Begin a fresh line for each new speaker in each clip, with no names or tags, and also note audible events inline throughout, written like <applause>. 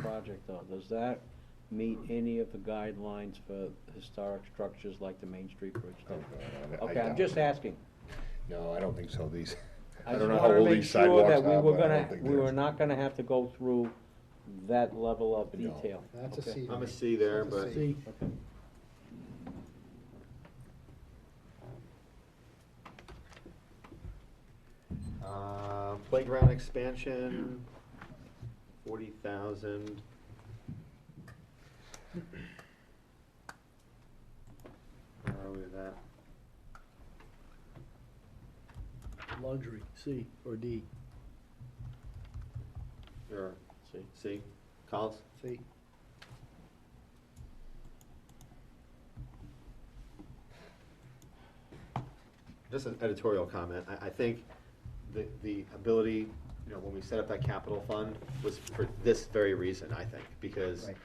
project though, does that meet any of the guidelines for historic structures like the Main Street Bridge
Oh,
did?
God, I- I
Okay, I'm
doubt
just
it.
asking.
No, I don't think so, these, <laughs>
I
I
just
don't know how
wanted to
old
make
these
sure
sidewalks
that
are, but
we
I
were
don't
gonna,
think
we were
there's.
not gonna have to go through that level of
No.
detail.
That's a
Okay.
C.
I'm a C there,
That's a
but-
C.
Okay.
Uh, Playground expansion, forty thousand. Where are we with that?
Luxury, C or D,
Or
See.
C, Collins?
C.
Just an editorial comment, I, I think the, the ability, you know, when we set up that capital fund was for this very reason, I think, because
Right.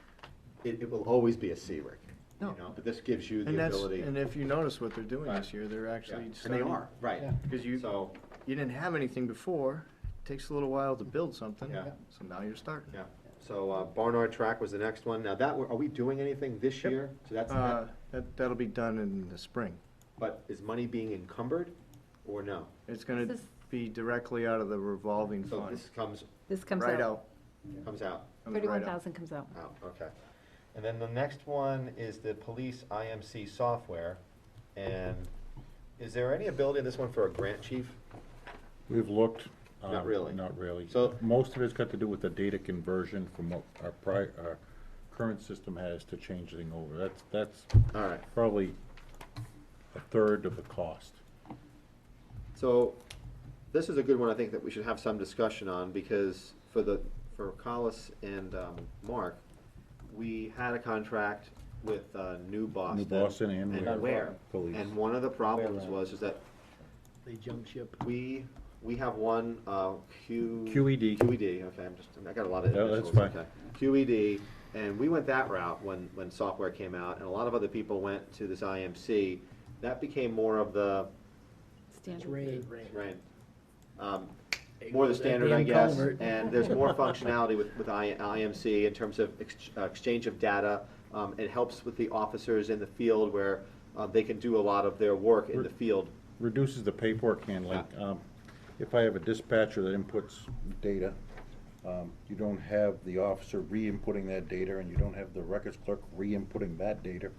it, it will always be a C, Rick. You
No.
know, but this gives you
And
the
that's,
ability.
and if you notice what they're doing
Right.
this year, they're
Yeah,
actually
And they
starting-
are, right,
Yeah.
Because you,
so,
you didn't have anything before, it takes a little while to build something,
Yeah.
so now you're starting.
yeah, so uh, Barnard Track was the next one, now that, are we doing anything this
Yep.
year? So that's,
Uh, that, that'll be done in the spring.
but is money being encumbered or no?
It's gonna
This is-
be directly out of the revolving
So
fund,
this comes,
This comes
right
out,
out.
comes out,
comes right out.
thirty-one thousand comes out.
out, okay. And then the next one is the police IMC software, and is there any ability in this one for a grant chief?
We've looked.
Not
um,
really.
Not really.
So-
Most of it's got to do with the data conversion from what our prior, our current system has to change thing over. That's, that's
All right,
probably a third of the cost.
So, this is a good one, I think, that we should have some discussion on, because for the, for Collis and, um, Mark, we had a contract with, uh, New Boston.
Boston and Ware
Ware.
Police.
And one of the problems
Ware.
was, is that
They jump ship.
we, we have one, uh, Q.
QED.
QED, okay, I'm just, I got a lot of
E No,
initials,
that's
okay.
fine.
QED, and we went that route when, when software came out, and a lot of other people went to this IMC. That became more of the,
Standard.
Rain.
Right. Um, More the standard, I
Damn
guess,
culvert.
and there's more functionality with, with I- IMC in terms of ex- uh, exchange of data. Um, It helps with the officers in the field where uh, they can do a lot of their work in the field.
Reduces the paperwork handling. Um, If I have a dispatcher that inputs data, um, you don't have the officer re-inputting that data, and you don't have the records clerk re-inputting that data.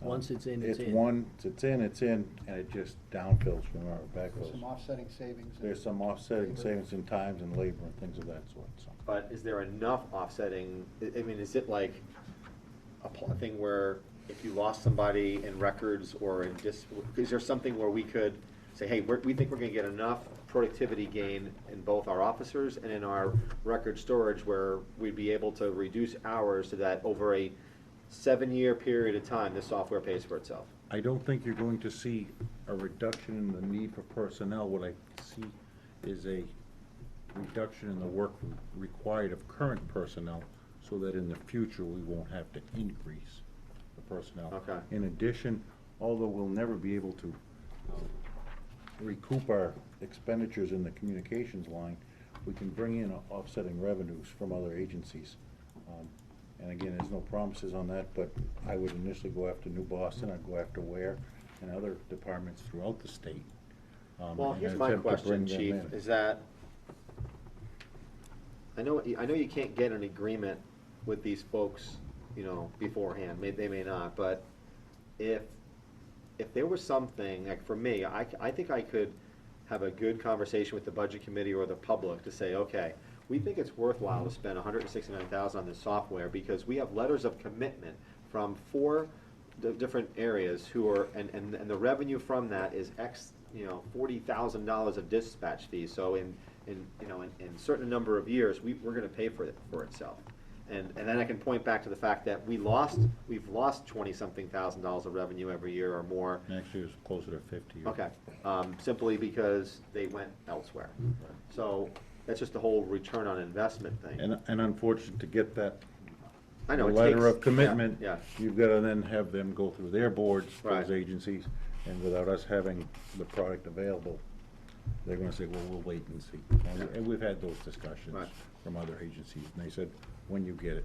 Once it's in, it's
It's
in.
one, it's in, it's in, and it just downfills from our backhoes.
Some offsetting savings. in-
There's some offsetting savings in times and labor and things of that sort, so.
But is there enough offsetting? I- I mean, is it like a pl- thing where if you lost somebody in records or in dis, is there something where we could say, hey, we're, we think we're gonna get enough productivity gain in both our officers and in our record storage where we'd be able to reduce hours so that over a seven-year period of time, this software pays for itself?
I don't think you're going to see a reduction in the need for personnel. What I see is a reduction in the work required of current personnel, so that in the future, we won't have to increase the personnel.
Okay.
In addition, although we'll never be able to um, recoup our expenditures in the communications line, we can bring in offsetting revenues from other agencies. Um, And again, there's no promises on that, but I would initially go after New Boston, I'd go after Ware and other departments throughout the state. um,
Well,
and
here's my
attempt to
question,
bring them
chief,
in.
is that, I know, I know you can't get an agreement with these folks, you know, beforehand, may, they may not, but if, if there was something, like for me, I, c- I think I could have a good conversation with the budget committee or the public to say, okay, we think it's worthwhile to spend hundred and sixty-nine thousand on this software because we have letters of commitment from four di- different areas who are, and, and, and the revenue from that is X, you know, forty thousand dollars of dispatch fees. So in, in, you know, in, in certain number of years, we, we're gonna pay for it, for itself. And, and then I can point back to the fact that we lost, we've lost twenty-something thousand dollars of revenue every year or more.
Next year's closer to fifty. or-
Okay, um, simply because they went elsewhere. So that's just the whole return on investment thing.
And, and unfortunate to get that
I know it takes-
letter of commitment.
Yeah, yeah.
You've gotta then have them go through their boards,
Right.
those agencies, and without us having the product available, they're gonna say, well, we'll wait and see. And we- And we've had those discussions
Right.
from other agencies, and they said, when you get it,